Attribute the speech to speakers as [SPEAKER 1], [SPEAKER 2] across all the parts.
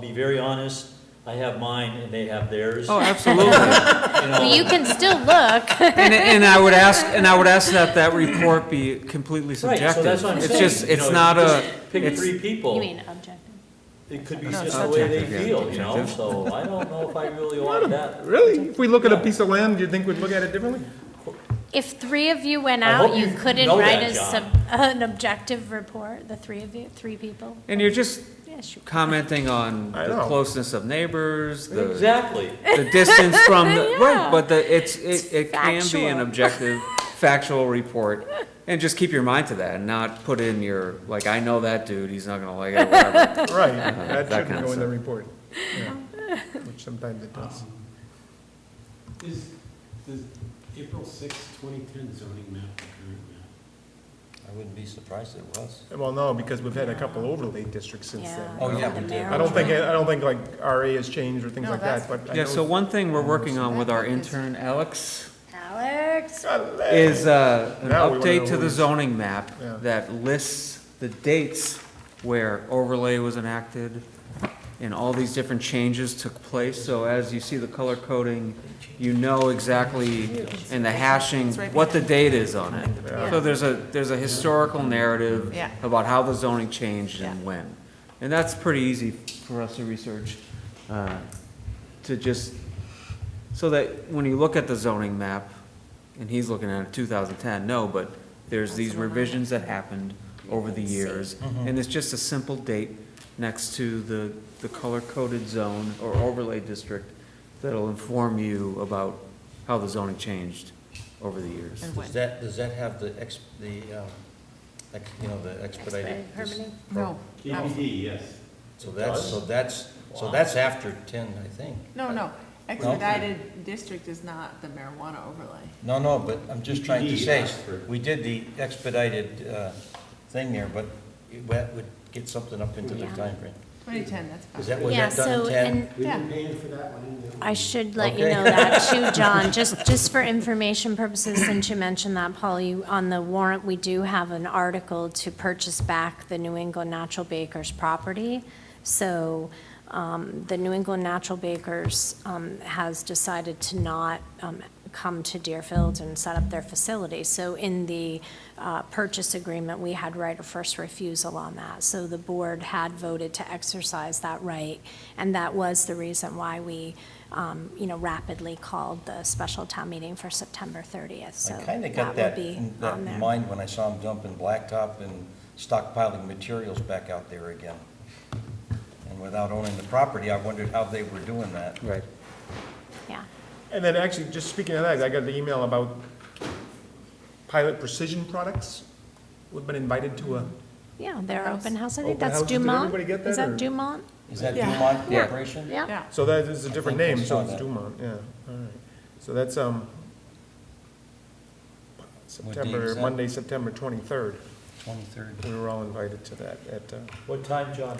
[SPEAKER 1] Be very honest, I have mine and they have theirs.
[SPEAKER 2] Oh, absolutely.
[SPEAKER 1] You know,
[SPEAKER 3] Well, you can still look.
[SPEAKER 2] And, and I would ask, and I would ask that that report be completely
[SPEAKER 1] Right,
[SPEAKER 2] subjective.
[SPEAKER 1] so that's what I'm saying.
[SPEAKER 2] It's just,
[SPEAKER 1] you know,
[SPEAKER 2] it's not a,
[SPEAKER 1] just Pick
[SPEAKER 2] it's,
[SPEAKER 1] three people.
[SPEAKER 3] You mean objective.
[SPEAKER 1] It could be
[SPEAKER 4] No, it's
[SPEAKER 1] just the way they
[SPEAKER 4] subjective, yeah,
[SPEAKER 1] feel, you know,
[SPEAKER 4] subjective.
[SPEAKER 1] so I don't know if I really want that.
[SPEAKER 4] Really? If we look at a piece of land, do you think we'd look at it differently?
[SPEAKER 3] If three of you went
[SPEAKER 1] I hope
[SPEAKER 3] out, you
[SPEAKER 1] you
[SPEAKER 3] couldn't
[SPEAKER 1] know
[SPEAKER 3] write
[SPEAKER 1] that,
[SPEAKER 3] a
[SPEAKER 1] John.
[SPEAKER 3] sub, uh, an objective report, the three of you, three people?
[SPEAKER 2] and you're just
[SPEAKER 3] Yeah, sure.
[SPEAKER 2] commenting on
[SPEAKER 4] I
[SPEAKER 2] the
[SPEAKER 4] know.
[SPEAKER 2] closeness of neighbors, the,
[SPEAKER 1] Exactly.
[SPEAKER 2] the distance from, the right,
[SPEAKER 3] Yeah.
[SPEAKER 2] but the, it's, it, it can be an
[SPEAKER 3] factual.
[SPEAKER 2] objective, factual report. And just keep your mind to that and not put in your, like, I know that dude, he's not gonna like it, whatever.
[SPEAKER 4] Right,
[SPEAKER 2] that
[SPEAKER 4] that
[SPEAKER 2] kind of
[SPEAKER 4] shouldn't go in the
[SPEAKER 2] stuff.
[SPEAKER 4] report. Yeah. Which sometimes it does.
[SPEAKER 5] Um, Is, does April sixth, twenty ten zoning map the current map?
[SPEAKER 6] I wouldn't be surprised if it was.
[SPEAKER 4] Well, no, because we've had a couple overlay districts since
[SPEAKER 3] Yeah.
[SPEAKER 4] then.
[SPEAKER 6] Oh, yeah,
[SPEAKER 3] the
[SPEAKER 6] we did.
[SPEAKER 3] mayor
[SPEAKER 4] I don't
[SPEAKER 3] would
[SPEAKER 4] think,
[SPEAKER 3] write.
[SPEAKER 4] I don't think like RA has changed or things
[SPEAKER 7] No,
[SPEAKER 4] like that,
[SPEAKER 7] that's-
[SPEAKER 4] but I know.
[SPEAKER 2] Yeah, so one thing we're working on with our
[SPEAKER 7] That is-
[SPEAKER 2] intern, Alex,
[SPEAKER 3] Alex,
[SPEAKER 2] is uh, an
[SPEAKER 4] Now we wanna know
[SPEAKER 2] update to
[SPEAKER 4] where
[SPEAKER 2] the
[SPEAKER 4] he's-
[SPEAKER 2] zoning map
[SPEAKER 4] Yeah.
[SPEAKER 2] that lists the dates where overlay was enacted and all these different changes took place. So as you see the color coding, you know exactly in the hashing what the date is on it.
[SPEAKER 4] Yeah.
[SPEAKER 2] So there's a, there's a historical narrative
[SPEAKER 7] Yeah.
[SPEAKER 2] about how the zoning changed
[SPEAKER 7] Yeah.
[SPEAKER 2] and when. And that's pretty easy for us to research, uh, to just so that when you look at the zoning map, and he's looking at it 2010, no, but there's these revisions that happened over the years.
[SPEAKER 4] Mm-hmm.
[SPEAKER 2] And it's just a simple date next to the, the color-coded zone or overlay district that'll inform you about how the zoning changed over the years.
[SPEAKER 7] And
[SPEAKER 6] Does
[SPEAKER 7] when?
[SPEAKER 6] that, does that have the ex, the, um, ex- you know, the expedited?
[SPEAKER 3] Expedited permitting?
[SPEAKER 7] No.
[SPEAKER 5] KBD, yes.
[SPEAKER 6] So that's, so that's, so that's after ten, I think.
[SPEAKER 7] No, no, expedited district is not the marijuana overlay.
[SPEAKER 6] No, no, but I'm just trying to
[SPEAKER 5] EPD
[SPEAKER 6] say,
[SPEAKER 5] asked for-
[SPEAKER 6] we did the expedited, uh, thing there, but it would would get something up into the
[SPEAKER 3] Yeah.
[SPEAKER 6] timeframe.
[SPEAKER 7] Twenty ten, that's fine.
[SPEAKER 6] Is that was
[SPEAKER 3] Yeah,
[SPEAKER 6] that done
[SPEAKER 3] so,
[SPEAKER 6] in ten?
[SPEAKER 3] and
[SPEAKER 5] We've been
[SPEAKER 7] Yeah.
[SPEAKER 5] paying for that one in the.
[SPEAKER 3] I should let you
[SPEAKER 6] Okay.
[SPEAKER 3] know that too, John, just, just for information purposes, since you mentioned that, Paul, you, on the warrant, we do have an article to purchase back the New England Natural Bakers property. So, um, the New England Natural Bakers, um, has decided to not, um, come to Deerfield and set up their facility. So in the, uh, purchase agreement, we had right of first refusal on that. So the board had voted to exercise that right, and that was the reason why we, um, you know, rapidly called the special town meeting for September 30th, so
[SPEAKER 6] I
[SPEAKER 3] that
[SPEAKER 6] kinda got
[SPEAKER 3] will
[SPEAKER 6] that,
[SPEAKER 3] be
[SPEAKER 6] in- that
[SPEAKER 3] on
[SPEAKER 6] in
[SPEAKER 3] there.
[SPEAKER 6] mind when I saw him dumping blacktop and stockpiling materials back out there again. And without owning the property, I wondered how they were doing that.
[SPEAKER 2] Right.
[SPEAKER 3] Yeah,
[SPEAKER 4] And then actually, just speaking of that, I got an email about Pilot Precision Products. We've been invited to a,
[SPEAKER 3] yeah, they're
[SPEAKER 7] House.
[SPEAKER 3] open house, I think
[SPEAKER 4] Open
[SPEAKER 3] that's
[SPEAKER 4] houses, did
[SPEAKER 3] Dumont.
[SPEAKER 4] everybody get
[SPEAKER 3] Is
[SPEAKER 4] that,
[SPEAKER 3] that
[SPEAKER 4] or-
[SPEAKER 3] Dumont?
[SPEAKER 6] Is that
[SPEAKER 7] Yeah.
[SPEAKER 6] Dumont
[SPEAKER 2] Yeah.
[SPEAKER 6] Corporation?
[SPEAKER 3] Yeah,
[SPEAKER 7] Yeah,
[SPEAKER 4] so that is a
[SPEAKER 6] I
[SPEAKER 4] different
[SPEAKER 6] think I
[SPEAKER 4] name, so
[SPEAKER 6] saw
[SPEAKER 4] it's
[SPEAKER 6] that.
[SPEAKER 4] Dumont, yeah, all right. So that's, um,
[SPEAKER 6] What date
[SPEAKER 4] September,
[SPEAKER 6] is that?
[SPEAKER 4] Monday, September twenty-third.
[SPEAKER 6] Twenty-third.
[SPEAKER 4] We were all invited to that at, uh,
[SPEAKER 1] What time, John?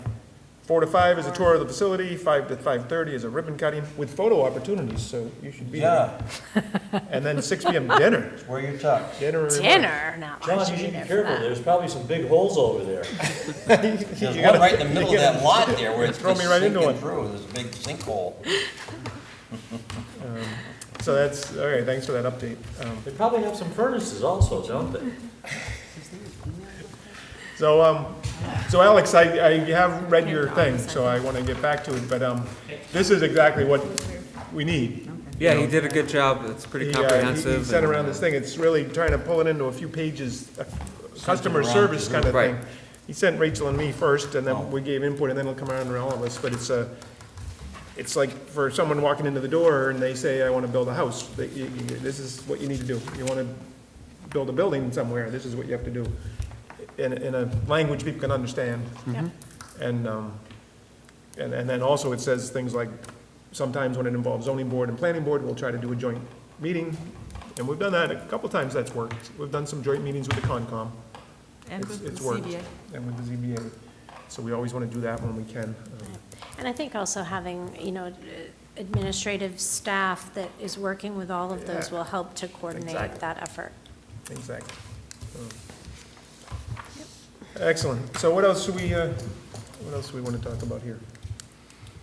[SPEAKER 4] Four to five is a tour of the facility, five to five-thirty is a ribbon cutting with photo opportunities, so you should be there.
[SPEAKER 6] Yeah,
[SPEAKER 4] And then six PM dinner,
[SPEAKER 6] it's where you tucked.
[SPEAKER 4] dinner. and-
[SPEAKER 3] dinner, no, I
[SPEAKER 1] John, you
[SPEAKER 3] should be
[SPEAKER 1] should be
[SPEAKER 3] there for
[SPEAKER 1] careful,
[SPEAKER 3] that.
[SPEAKER 1] there's probably some big holes over there.
[SPEAKER 6] There's
[SPEAKER 4] You
[SPEAKER 6] one
[SPEAKER 4] gotta-
[SPEAKER 6] right in the middle of that lot there where it's
[SPEAKER 4] Throw
[SPEAKER 6] just
[SPEAKER 4] me right into
[SPEAKER 6] sinking
[SPEAKER 4] it.
[SPEAKER 6] through, there's a big sinkhole.
[SPEAKER 4] So that's, all right, thanks for that update. Um,
[SPEAKER 1] They probably have some furnaces also, don't they?
[SPEAKER 4] So, um, so Alex, I, I have read your thing, so I want to get back to it, but, um, this is exactly what we need.
[SPEAKER 2] Yeah, he did a good job. It's pretty
[SPEAKER 4] He, uh, he-
[SPEAKER 2] comprehensive.
[SPEAKER 4] He sent
[SPEAKER 2] and,
[SPEAKER 4] around this
[SPEAKER 2] uh,
[SPEAKER 4] thing, it's really trying to pull it into a few pages, a customer
[SPEAKER 6] around
[SPEAKER 4] service
[SPEAKER 6] to
[SPEAKER 4] kind of
[SPEAKER 2] Right.
[SPEAKER 4] thing. He sent Rachel and me first, and then we gave input, and then it'll come around to all of us, but it's a, it's like for someone walking into the door and they say, I want to build a house, that you- you- this is what you need to do. You want to build a building somewhere, this is what you have to do, in, in a language people can understand.
[SPEAKER 7] yeah.
[SPEAKER 2] Mm-hmm.
[SPEAKER 4] And, um, and, and then also it says things like, sometimes when it involves zoning board and planning board, we'll try to do a joint meeting. And we've done that a couple times, that's worked. We've done some joint meetings with the Concom
[SPEAKER 7] And
[SPEAKER 4] It's-
[SPEAKER 7] with the
[SPEAKER 4] it's worked.
[SPEAKER 7] CBA.
[SPEAKER 4] and with the ZBA. So we always want to do that when we can. Um,
[SPEAKER 3] And I think also having, you know, administrative staff that is working with all of those
[SPEAKER 4] Yeah.
[SPEAKER 3] will help to coordinate
[SPEAKER 4] Exactly.
[SPEAKER 3] that effort.
[SPEAKER 4] Exactly. Excellent. So what else do we, uh, what else do we want to talk about here?